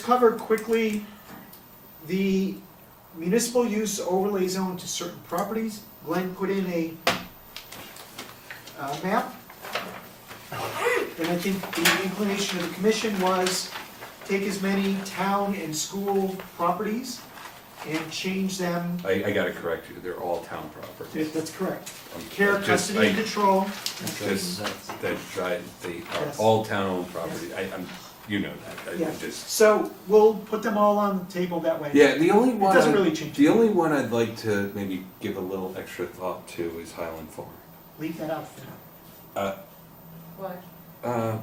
cover quickly the municipal use overlay zone to certain properties. Glenn put in a uh, map. And I think the inclination of the commission was take as many town and school properties and change them, I, I gotta correct you, they're all town properties. if that's correct. I'm- Care, I'm just- custody, and I- control. Just, that, I, they are Yes. all town-owned property, I, I'm, you know that, I Yeah. just. So we'll put them all on the table that way. Yeah, the only one, doesn't I- really change the it. only one I'd like to maybe give a little extra thought to is Highland Farm. Leave that out for now. Uh, Why? uh,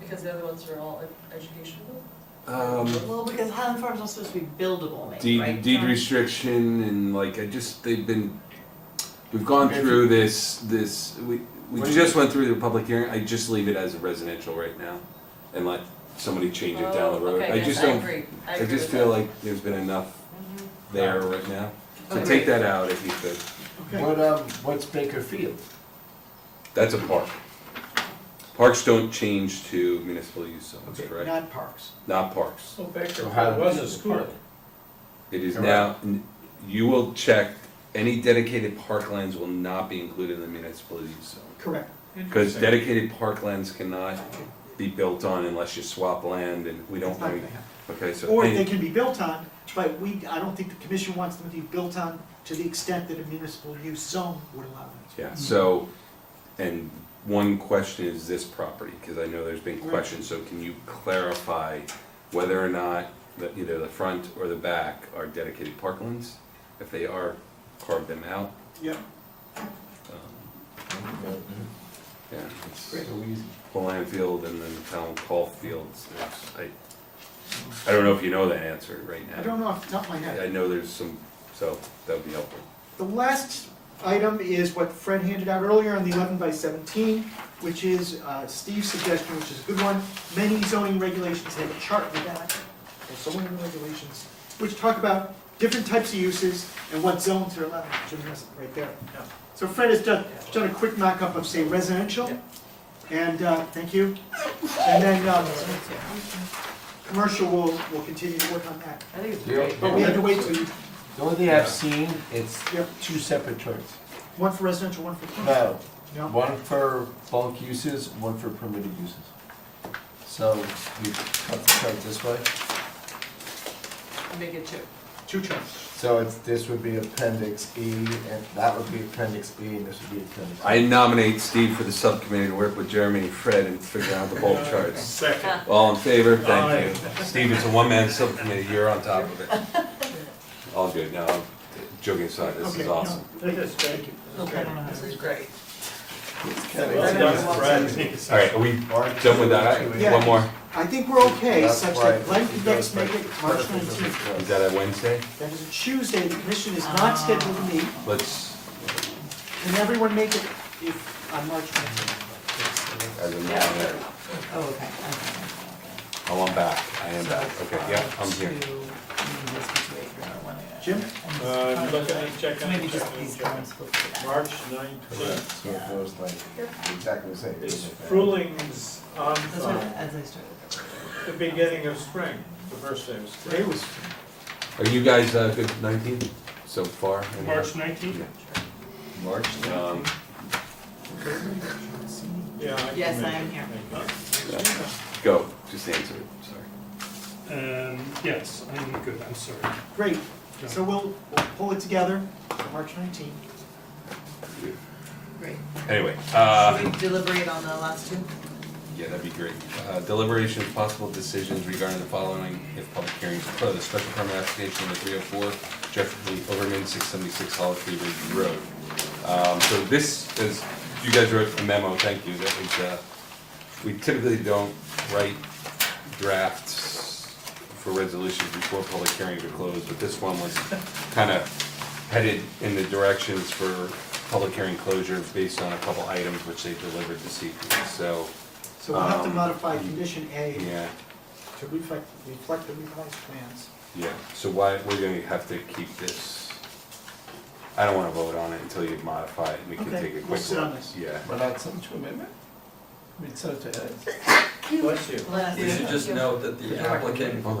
Because the other ones are all ed- educational? um, Well, because Highland Farm's not supposed to be buildable, maybe, deed, right? deed John? restriction and like, I just, they've been, we've gone through this, this, we, we What- just went through the public hearing, I just leave it as a residential right now and let somebody change it down the Oh, road. okay, I yes, just don't, agree. I I agree just with feel that. Mm-hmm. like there's been enough there right now. So Okay. take that out if you could. Okay, What, um, what's Baker Field? That's a park. Parks don't change to municipal use zones, okay, correct? not parks. Not parks. Oh, So back there, Highland it was a Field school. Park. It is Correct. now, you will check, any dedicated parklands will not be included in the municipal use zone. Correct. Because dedicated parklands cannot be built on unless you swap land and we don't, It's not really- gonna happen. okay, so. Or any- they can be built on, but we, I don't think the commission wants them to be built on to the extent that a municipal use zone would allow them to. Yeah, Mm-hmm. so, and one question is this property, because I know there's been Right. questions, so can you clarify whether or not the, either the front or the back are dedicated parklands? If they are, carve them out. Yep, Um, Yeah, it's Great. So easy. Poland Field and then Town Hall Fields, there's, I, I don't know if you know that answer right now. I don't know off the top of my I head. know there's some, so that would be helpful. The last item is what Fred handed out earlier on the eleven by seventeen, which is uh, Steve's suggestion, which is a good one. Many zoning regulations have a chart with that, or zoning regulations, which talk about different types of uses and what zones are allowed, Jim has it right there. So Fred has done, done a quick mock-up of, say, residential, and, uh, thank you. And then, um, commercial, we'll, we'll continue to work on that. I think it's Yeah. great. But we had to wait till, you- The only thing I've seen, it's Yep. two separate charts. one for residential, one for commercial. No? No, one for bulk uses, one for permitted uses. So you cut the chart this way, Make it two. Two terms. so it's, this would be appendix E, and that would be appendix E, and this would be appendix. I nominate Steve for the subcommittee to work with Jeremy and Fred and figure out the bulk charts. Second. All in favor? Thank you. Steve, it's a one-man subcommittee, you're on top of it. All good, no, I'm joking aside, this Okay, is no, awesome. It is, thank you. Okay. This is great. Well done, Brad. All right, are we done with that? Yeah. One more, I think we're okay, That's such why that Glenn it can next goes make it like- March nineteenth. is that a Wednesday? That is a Tuesday, the commission is not Ah. scheduled to meet. Let's, Can everyone make it if, on March nineteenth? as a matter of, Oh, okay. uh, oh, I'm back, I am back, uh, okay, yeah, I'm here. Jim? Uh, look at it, check on it, Maybe check just on it, these check on comments. will fit that. March Correct, nineteenth, so it goes like exactly the same. it's Frulings on That's what, the, as I started. the beginning of spring, the first day of Today spring. was, Are you guys, uh, good nineteen so far? March nineteenth? March Um, Yeah. I can Yes, I make am it, here. make it. go, just answer it, sorry. Um, yes, I'm good, I'm sorry. great. So we'll, we'll pull it together, for March nineteenth. Great. Anyway, uh. Should we deliberate on the last two? Yeah, that'd be great. Uh, Deliberation of possible decisions regarding the following if public hearings are closed. Special permit application number three oh four, Jeffrey Overman, six seventy-six Hollow Tree Ridge Road. Um, so this is, you guys wrote a memo, thank you, that was, uh, we typically don't write drafts for resolutions before public hearings are closed, but this one was kind of headed in the directions for public hearing closure based on a couple items which they delivered this evening, so, So we'll have to Um, modify condition A yeah, to reflect, reflect the revised plans. yeah. So why, we're gonna have to keep this, I don't wanna vote on it until you modify it, and we can Okay, take a we'll quick look. sit on this. Yeah. We're not subject to amendment? We'd subject to edits? Bless you. Last We should just note that the applicant Hold on.